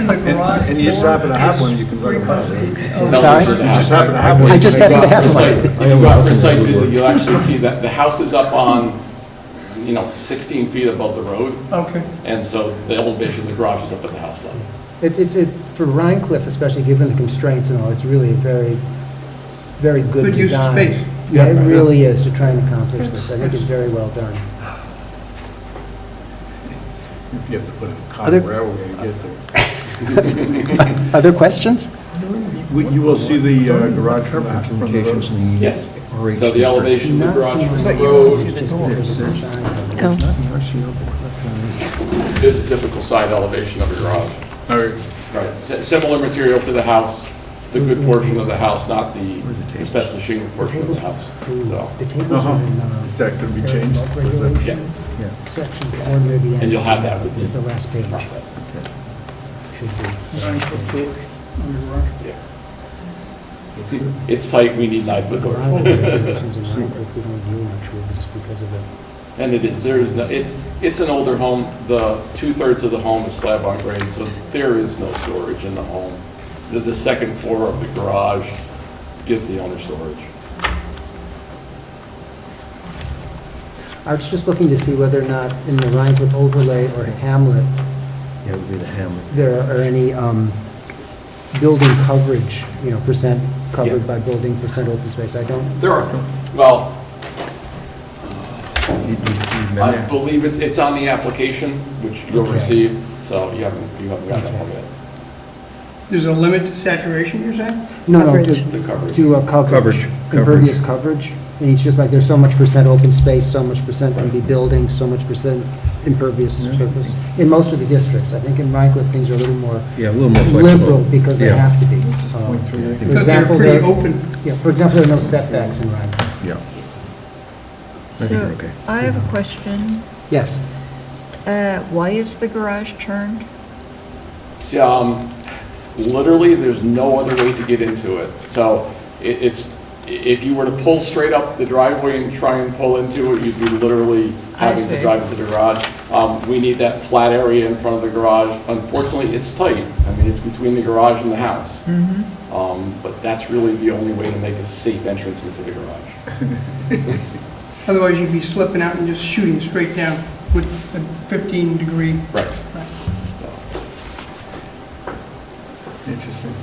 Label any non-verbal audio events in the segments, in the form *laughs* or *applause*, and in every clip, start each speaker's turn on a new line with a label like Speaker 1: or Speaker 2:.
Speaker 1: and you just happen to have one, you can let them know.
Speaker 2: sorry?
Speaker 1: You just happen to have one.
Speaker 2: I just
Speaker 1: you can
Speaker 2: happen
Speaker 1: make
Speaker 2: to have
Speaker 1: offers.
Speaker 2: one.
Speaker 3: Site- If you go out for a site visit, you'll actually see that the house is up on, you know, 16 feet above the road,
Speaker 4: Okay.
Speaker 3: and so the elevation of the garage is up at the house level.
Speaker 2: It- It's, it- for Rhine Cliff especially, given the constraints and all, it's really a very, very good design.
Speaker 4: Good use of space.
Speaker 2: Yeah, it really is to try and accomplish this. I think it's very well done.
Speaker 1: If you have to put a
Speaker 2: Other-
Speaker 1: common railway to get there.
Speaker 2: *laughs* Other questions?
Speaker 1: We- You will see the uh, garage from the from the road.
Speaker 5: Communications needs.
Speaker 3: Yes.
Speaker 5: Operations
Speaker 3: So the elevation of the
Speaker 2: Not
Speaker 3: garage
Speaker 2: too
Speaker 3: from the
Speaker 2: much.
Speaker 3: road
Speaker 2: It's just because of the size of it.
Speaker 6: Oh.
Speaker 3: is a typical side elevation of a garage. Right, S- similar material to the house, the good portion of the house, not the asbestos shingle portion of the house, so.
Speaker 2: The tables are in, uh,
Speaker 1: Is that gonna be changed?
Speaker 2: Bulk
Speaker 1: Was that-
Speaker 3: Yeah,
Speaker 2: regulation, section four near the end.
Speaker 3: and you'll have that with
Speaker 2: The
Speaker 3: the
Speaker 2: last page
Speaker 3: process.
Speaker 2: should be.
Speaker 3: Yeah. It's tight, we need nine-foot
Speaker 2: The
Speaker 3: doors. *laughs*
Speaker 2: Rhine Cliff regulations in Rhine Cliff, we don't do much with just because of the
Speaker 3: And it is, there is, no. it's, it's an older home, the two-thirds of the home is slab on grade, so there is no storage in the home. The, the second floor of the garage gives the owner storage.
Speaker 2: I was just looking to see whether or not in the Rhine Cliff overlay or Hamlet,
Speaker 5: Yeah, would be the hamlet.
Speaker 2: there are any um, building coverage, you know, percent covered by building, percent open space. I don't,
Speaker 3: There are, well,
Speaker 5: You- you- you remember?
Speaker 3: I believe it's, it's on the application, which you'll
Speaker 2: Okay.
Speaker 3: receive, so you haven't, you haven't gotten that one yet.
Speaker 4: There's a limit to saturation, you're saying?
Speaker 2: no, no,
Speaker 6: Coverage.
Speaker 3: It's
Speaker 2: do-
Speaker 3: a coverage.
Speaker 2: do a coverage,
Speaker 5: Coverage, coverage.
Speaker 2: impervious coverage. And it's just like, there's so much percent open space, so much percent can be building, so much percent impervious surface. In most of the districts, I think in Rhine Cliff, things are a little more
Speaker 5: Yeah, a little more flexible.
Speaker 2: liberal because they
Speaker 5: Yeah.
Speaker 2: have to be. Um, For
Speaker 4: Because they're
Speaker 2: example, there,
Speaker 4: pretty open.
Speaker 2: yeah, for example, there are no setbacks in Rhine Cliff.
Speaker 5: Yeah. think we're
Speaker 6: So
Speaker 5: okay.
Speaker 6: I have a question.
Speaker 2: Yes.
Speaker 6: Uh, Why is the garage turned?
Speaker 3: So, um, literally, there's no other way to get into it. So it, it's, i- if you were to pull straight up the driveway and try and pull into it, you'd be literally
Speaker 6: I
Speaker 3: having to
Speaker 6: see.
Speaker 3: drive to the garage. Um, we need that flat area in front of the garage. Unfortunately, it's tight. I mean, it's between the garage and the house.
Speaker 6: Mm-hmm.
Speaker 3: Um, but that's really the only way to make a safe entrance into the garage.
Speaker 4: Otherwise, you'd be slipping out and just shooting straight down with a 15-degree.
Speaker 3: Right.
Speaker 1: Interesting.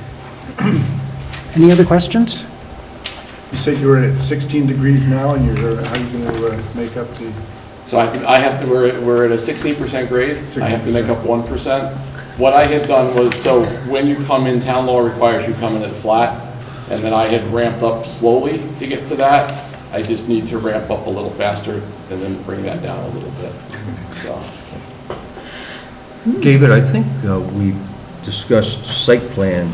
Speaker 2: Any other questions?
Speaker 1: You said you were at 16 degrees now, and you're, how are you going to make up the,
Speaker 3: So I have to, I have to, we're, at- we're at a sixteen percent grade, I have to make up one percent. What I had done was, so when you come in, town law requires you come in at a flat, and then I had ramped up slowly to get to that. I just need to ramp up a little faster and then bring that down a little bit, so.
Speaker 5: David, I think uh, we discussed site plan,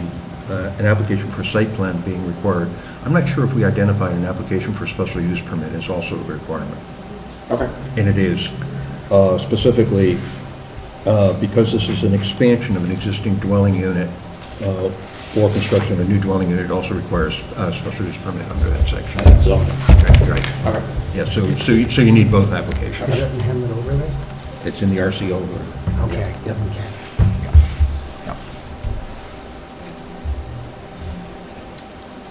Speaker 5: uh, an application for site plan being required. I'm not sure if we identified an application for special use permit is also a requirement.
Speaker 3: Okay.
Speaker 5: And it is, uh, specifically, uh, because this is an expansion of an existing dwelling unit, uh, or construction of a new dwelling unit, it also requires a special use permit under that section.
Speaker 3: And so,
Speaker 5: Okay, Right,
Speaker 3: all right,
Speaker 5: yeah, so, so you, so you need both applications.
Speaker 2: Is that in Hamlet overlay?
Speaker 5: It's in the RC over.
Speaker 2: Okay,
Speaker 5: Yep.
Speaker 2: okay.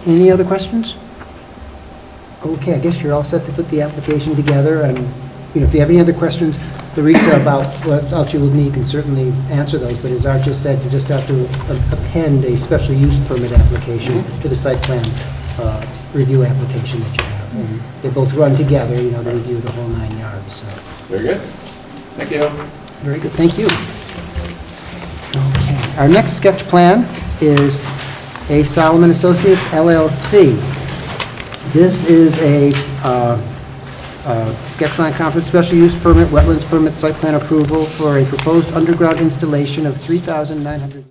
Speaker 2: Any other questions? Okay, I guess you're all set to put the application together, and, you know, if you have any other questions, Larissa, about what else you will need, can certainly answer those, but as Art just said, you just have to a- append a special use permit application to the site plan uh, review application that you have. And They both run together, you know, they review the whole nine yards, so,
Speaker 3: very good. Thank you.
Speaker 2: very good, thank you. Okay, our next sketch plan is A. Solomon Associates LLC. This is a uh, uh, sketch plan conference, special use permit, wetlands permit, site plan approval for a proposed underground installation of 3,900...